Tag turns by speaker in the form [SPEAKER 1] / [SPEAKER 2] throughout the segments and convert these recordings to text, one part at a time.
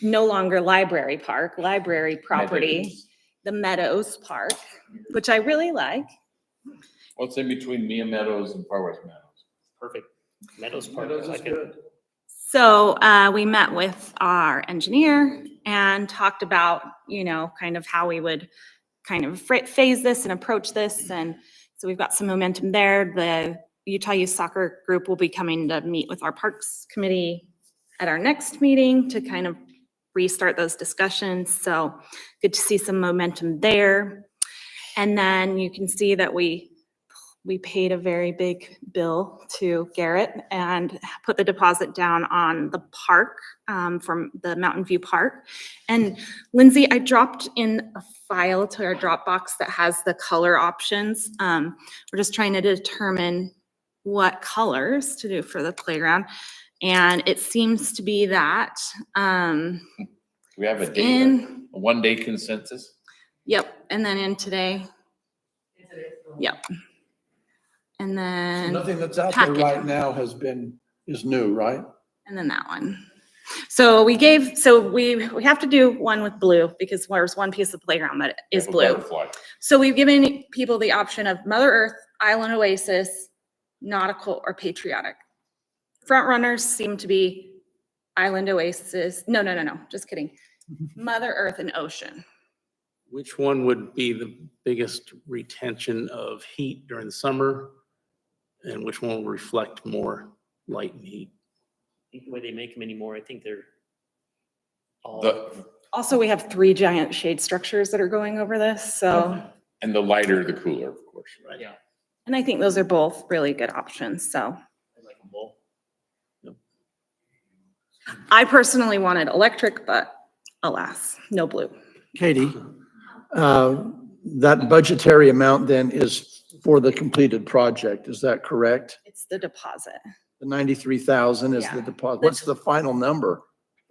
[SPEAKER 1] no longer Library Park, Library Property, the Meadows Park, which I really like.
[SPEAKER 2] What's in between Mia Meadows and Far West Meadows?
[SPEAKER 3] Perfect. Meadows Park, I
[SPEAKER 2] Meadows is
[SPEAKER 3] like it.
[SPEAKER 2] good.
[SPEAKER 1] So uh, we met with our engineer and talked about, you know, kind of how we would kind of phra- phase this and approach this. And so we've got some momentum there. The Utah Youth Soccer Group will be coming to meet with our Parks Committee at our next meeting to kind of restart those discussions. So good to see some momentum there. And then you can see that we, we paid a very big bill to Garrett and put the deposit down on the park, um, from the Mountain View Park. And Lindsay, I dropped in a file to our Dropbox that has the color options. Um, we're just trying to determine what colors to do for the playground. And it seems to be that, um,
[SPEAKER 2] Do we have a date,
[SPEAKER 1] in,
[SPEAKER 2] a one-day consensus?
[SPEAKER 1] yep, and then in today. Yep. And then.
[SPEAKER 4] Nothing that's out there
[SPEAKER 1] packet.
[SPEAKER 4] right now has been, is new, right?
[SPEAKER 1] And then that one. So we gave, so we, we have to do one with blue because there's one piece of playground that is
[SPEAKER 2] Have a
[SPEAKER 1] blue.
[SPEAKER 2] butterfly.
[SPEAKER 1] So we've given people the option of Mother Earth, Island Oasis, Nautical, or Patriotic. Front runners seem to be Island Oasis, no, no, no, no, just kidding. Mother Earth and Ocean.
[SPEAKER 5] Which one would be the biggest retention of heat during the summer? And which one will reflect more light and heat?
[SPEAKER 3] The way they make them anymore, I think they're all,
[SPEAKER 2] The,
[SPEAKER 1] Also, we have three giant shade structures that are going over this, so,
[SPEAKER 2] and the lighter, the cooler, of course.
[SPEAKER 5] Right.
[SPEAKER 3] yeah,
[SPEAKER 1] and I think those are both really good options, so.
[SPEAKER 3] I like them all.
[SPEAKER 1] I personally wanted electric, but alas, no blue.
[SPEAKER 4] Katie, uh, that budgetary amount then is for the completed project, is that correct?
[SPEAKER 1] It's the deposit.
[SPEAKER 4] The 93,000 is the
[SPEAKER 1] Yeah.
[SPEAKER 4] deposit. What's the final number?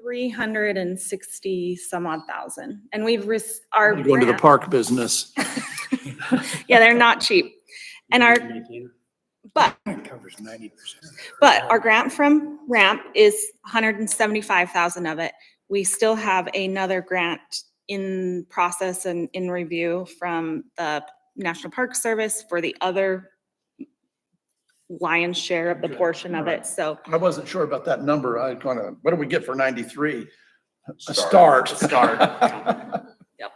[SPEAKER 1] Three hundred and sixty some odd thousand. And we've risked our.
[SPEAKER 4] Going to the
[SPEAKER 1] grant-
[SPEAKER 4] park business.
[SPEAKER 1] Yeah, they're not cheap. And our,
[SPEAKER 5] Maintainer?
[SPEAKER 1] but,
[SPEAKER 4] Covers 90%.
[SPEAKER 1] but our grant from RAMP is hundred and seventy-five thousand of it. We still have another grant in process and in review from the National Park Service for the other lion's share of the portion of it. So
[SPEAKER 4] I wasn't sure about that number. I kind of, what do we get for 93? A
[SPEAKER 2] Start.
[SPEAKER 4] start.
[SPEAKER 2] Start.
[SPEAKER 1] Yep.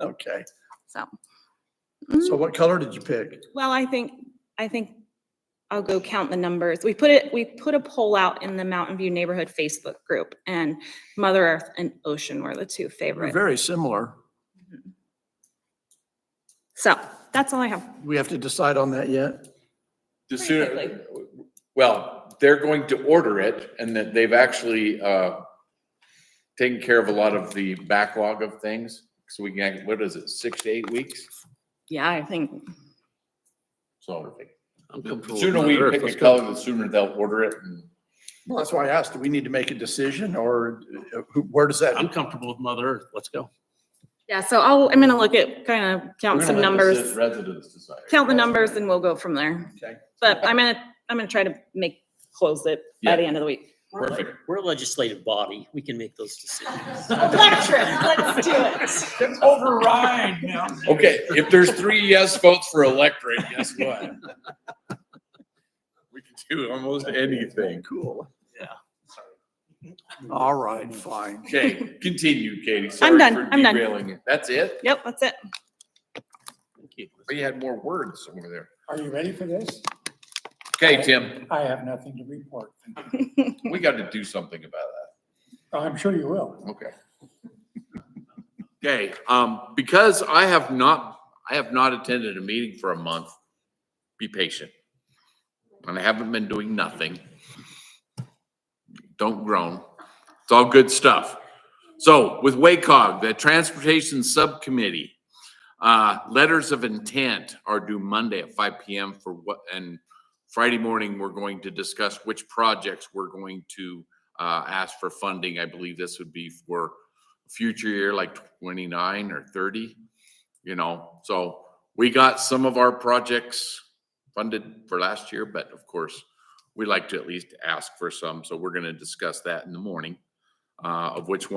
[SPEAKER 4] Okay,
[SPEAKER 1] So,
[SPEAKER 4] so what color did you pick?
[SPEAKER 1] well, I think, I think I'll go count the numbers. We put it, we put a poll out in the Mountain View Neighborhood Facebook group and Mother Earth and Ocean were the two
[SPEAKER 4] We're
[SPEAKER 1] favorite.
[SPEAKER 4] very similar.
[SPEAKER 1] So that's all I have.
[SPEAKER 4] We have to decide on that yet?
[SPEAKER 2] The
[SPEAKER 1] Pretty
[SPEAKER 2] sooner, well, they're going to order it and that they've actually, uh, taken care of a lot of the backlog of things. So we can, act- what is it, six to eight weeks?
[SPEAKER 1] Yeah, I think,
[SPEAKER 2] So
[SPEAKER 5] I'm
[SPEAKER 2] the
[SPEAKER 5] comfortable with
[SPEAKER 2] sooner we
[SPEAKER 5] Mother Earth,
[SPEAKER 2] pick a
[SPEAKER 5] let's go.
[SPEAKER 2] color, the sooner they'll order it and
[SPEAKER 4] Well, that's why I asked, do we need to make a decision or uh, who- where does that?
[SPEAKER 5] I'm comfortable with Mother Earth. Let's go.
[SPEAKER 1] yeah, so I'll, I'm gonna look at, kind of count
[SPEAKER 2] We're
[SPEAKER 1] some
[SPEAKER 2] gonna let the
[SPEAKER 1] numbers,
[SPEAKER 2] Residents decide.
[SPEAKER 1] count the numbers and we'll go from there.
[SPEAKER 4] Okay.
[SPEAKER 1] But I'm gonna, I'm gonna try to make, close it by the
[SPEAKER 2] Yeah.
[SPEAKER 1] end of the week.
[SPEAKER 3] We're a leg-
[SPEAKER 2] Perfect.
[SPEAKER 3] We're a legislative body. We can make those decisions.
[SPEAKER 1] Electric, let's do it.
[SPEAKER 4] Override now.
[SPEAKER 2] Okay, if there's three yes votes for electric, guess what? We can do almost anything.
[SPEAKER 4] Cool.
[SPEAKER 5] Yeah.
[SPEAKER 4] All right, fine.
[SPEAKER 2] Okay, continue, Katie. Sorry
[SPEAKER 1] done,
[SPEAKER 2] for
[SPEAKER 1] I'm done.
[SPEAKER 2] derailing it. That's it?
[SPEAKER 1] Yep, that's it.
[SPEAKER 5] Thank you.
[SPEAKER 2] But you had more words over there.
[SPEAKER 6] Are you ready for this?
[SPEAKER 2] Okay, Tim,
[SPEAKER 6] I have nothing to report.
[SPEAKER 2] we got to do something about
[SPEAKER 6] I'm sure you will.
[SPEAKER 2] that. Okay. Okay, um, because I have not, I have not attended a meeting for a month, be patient. And I haven't been doing nothing. Don't groan. It's all good stuff. So with WACOG, the Transportation Subcommittee, uh, letters of intent are due Monday at five PM for what, and Friday morning, we're going to discuss which projects we're going to, uh, ask for funding. I believe this would be for future year, like twenty-nine or thirty, you know? So we got some of our projects funded for last year, but of course, we like to at least ask for some, so we're gonna discuss that in the morning, uh, of which one.